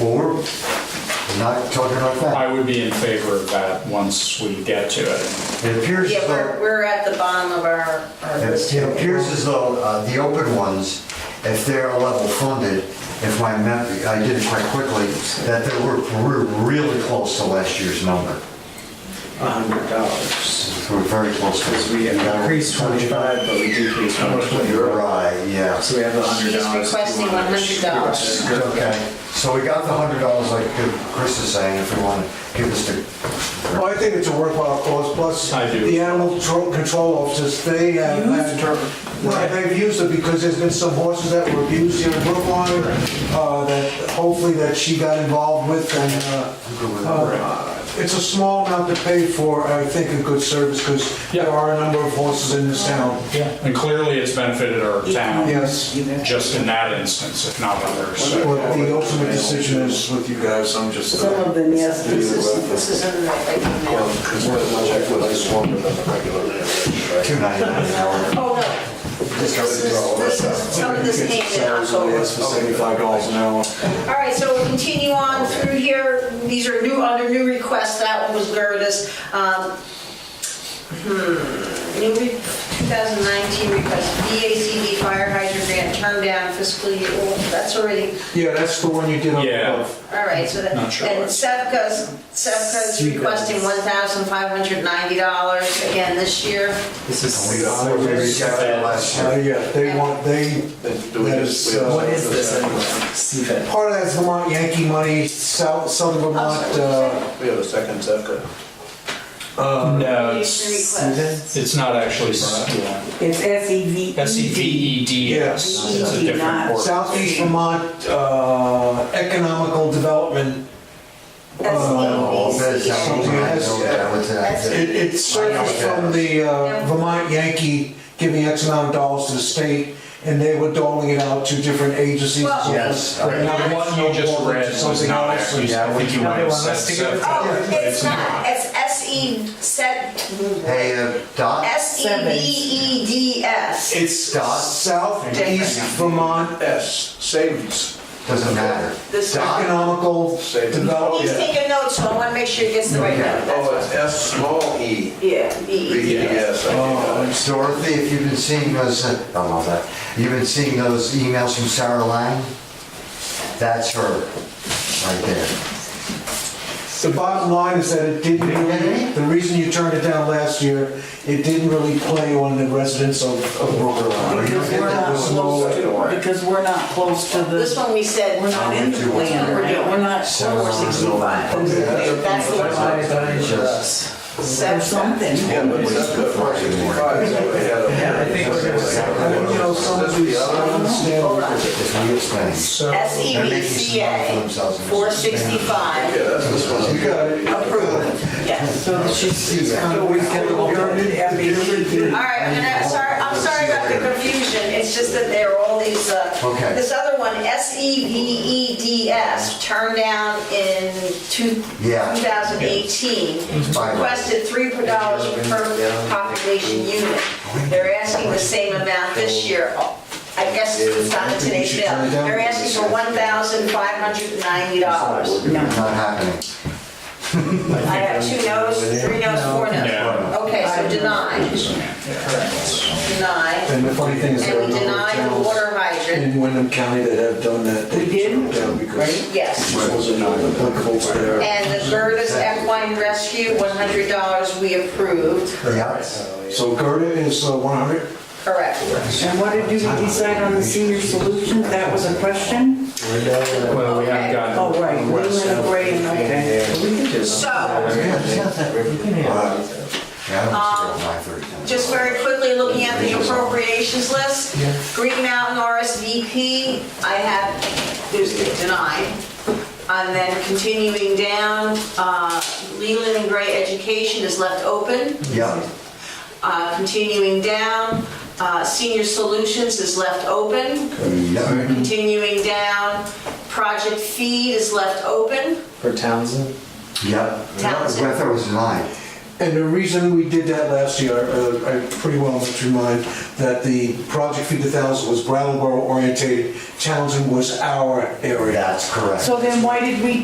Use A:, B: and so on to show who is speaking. A: not talking about that.
B: I would be in favor of that once we get to it.
A: It appears as
C: Yeah,
A: though,
C: we're, we're at the bottom of our, our
A: it
C: list.
A: it appears as though uh, the open ones, if they're level funded, if my mem, I did it quite quickly, that they were, we're really close to last year's number.
D: hundred dollars.
A: We're very close. to it.
D: Because we increased twenty-five, but we decreased one twenty.
A: You're right, yeah.
D: So we have a hundred
C: She's
D: dollars.
C: requesting $100.
A: Okay, so we got the hundred dollars like Chris is saying, if you want to give us the,
E: Well, I think it's a worthwhile cause, plus
B: I do.
E: the animal tro- control officers, they uh, have, Right, they've used it because there's been some horses that were abused here in Brookline, uh, that hopefully that she got involved with and, uh,
A: good with that.
E: uh, it's a small amount to pay for, I think, a good service, because
B: Yeah.
E: there are a number of horses in this town.
B: And clearly, it's benefited our town.
E: Yes.
B: Just in that instance, if not others. so.
E: What the ultimate decision is with you guys, I'm just. uh,
C: Some of them, yes, this is, this is in the right now.
F: Because we're much like what I swung with on the regular
A: two
F: land, right?
A: ninety-nine an hour.
C: Oh, no,
F: This
C: this is, this is, some of this came in October.
E: That's for seventy-five dollars an hour.
C: All right, so we'll continue on through here. These are new, under new requests, that one was Gervis. Um, hmm, New re- 2019 request, VACD fire hydrant grant turned down fiscal year, oh, that's already,
E: Yeah, that's the one you did up
B: Yeah.
E: above.
C: all right, so that,
B: Not sure
C: and
B: what.
C: Sevka's, Sevka's requesting $1,590 again this year.
D: This
A: We
D: is,
A: got, we reached out to last
E: Uh,
A: year.
E: yeah, they want, they, that is, uh,
D: what is this anyway? CVET.
E: part of that's Vermont Yankee money, South, Southern Vermont, uh,
F: We have a second Zevka.
B: Uh, No, it's,
C: Request.
B: it's not actually, yeah.
G: It's S-E-V-E-D.
B: S E V E D S.
E: Yes.
B: It's a different word.
E: Southeast Vermont, uh, Economical Development.
A: All bids, that was,
C: Oh,
A: I know that was,
E: It,
A: uh,
E: it surfaced from the uh, Vermont Yankee giving X amount of dollars to the state, and they were doling it out to different agencies.
C: Well-
A: Yes.
E: And now
B: The
E: they-
B: one you just read was
E: Something
B: not
E: else.
B: actually, I think you might have
D: Another
B: said.
D: one, let's take it.
B: so.
C: Oh, it's not, it's S-E, set, E
A: Hey, uh, Dot,
C: S-E-V-E-D-S.
E: It's
A: Dot.
E: Southeast Vermont
F: S, savings.
A: doesn't matter.
C: This-
A: Dot,
E: Economical
F: Save it.
E: Development.
C: He's taking notes, so I want to make sure he gets the right number. that's
F: Oh,
C: all.
F: it's S small e.
C: Yeah, V.
F: B E S. I
E: Oh.
F: think.
A: Dorothy, if you've been seeing those, uh, I don't know that, you've been seeing those emails from Sarah Lang? That's her, right there.
E: The bottom line is that it didn't really, the reason you turned it down last year, it didn't really play on the residents of of Brooklyn.
G: Because we're not close to, because we're not close to
C: This
G: the,
C: one we said,
G: we're not in the plan, right? We're not
C: Oh,
A: Sarah
G: close.
A: Lang.
C: that's the one,
G: Or
C: Sevka.
G: something.
F: Yeah, but it's up to four sixty-five. Yeah, I think we're
E: I mean, you know, some of these, I don't
C: Hold
E: understand.
C: on.
A: It's real things.
C: E
A: They're making some money for themselves in this.
C: S-E-V-C-A, 465,
F: Yeah, that's this one.
E: You got it.
C: approved, yes.
G: So she's, she's kind of,
C: All right, I'm gonna, sorry, I'm sorry about the confusion, it's just that there are all these, uh,
A: Okay.
C: this other one, E S-E-V-E-D-S, turned down in two-
A: Yeah.
C: 2018,
A: fine.
C: requested $3 per dollars per population unit. They're asking the same amount this year, I guess it's not in today's bill. They're asking for $1,590.
A: Not happening.
C: I have two no's, three no's, four no's.
B: No.
C: Okay, so denied, denied.
E: And the funny thing is, there are
C: And
E: a
C: we
E: number
C: denied the
E: of
C: water
E: towns
C: hydrant,
E: in Wyndham County that have done that.
G: We did?
E: Right.
C: yes.
E: This was not applicable to their.
C: And the Gertis Equine Rescue, $100 we approved,
A: Yeah.
E: So Gerda is uh, 100?
C: correct.
G: and what did you decide on the senior solutions? That was a question?
B: Well, we haven't gotten.
G: Oh, right, we went away and, okay.
C: So, just very quickly looking at the appropriations list, Green Mountain RSVP, I have, there's the denied. And then continuing down, uh, Leland and Gray Education is left open.
A: Yeah,
C: Uh, Continuing down, uh, Senior Solutions is left open.
A: yeah,
C: Continuing down, Project Feed is left open.
D: For Townsend?
A: yeah.
C: Townsend.
A: I thought it was nine.
E: And the reason we did that last year, uh, I pretty well must remind that the Project Feed the Thousand was Brattleboro orientated, Townsend was our area.
A: That's correct.
G: So then why did we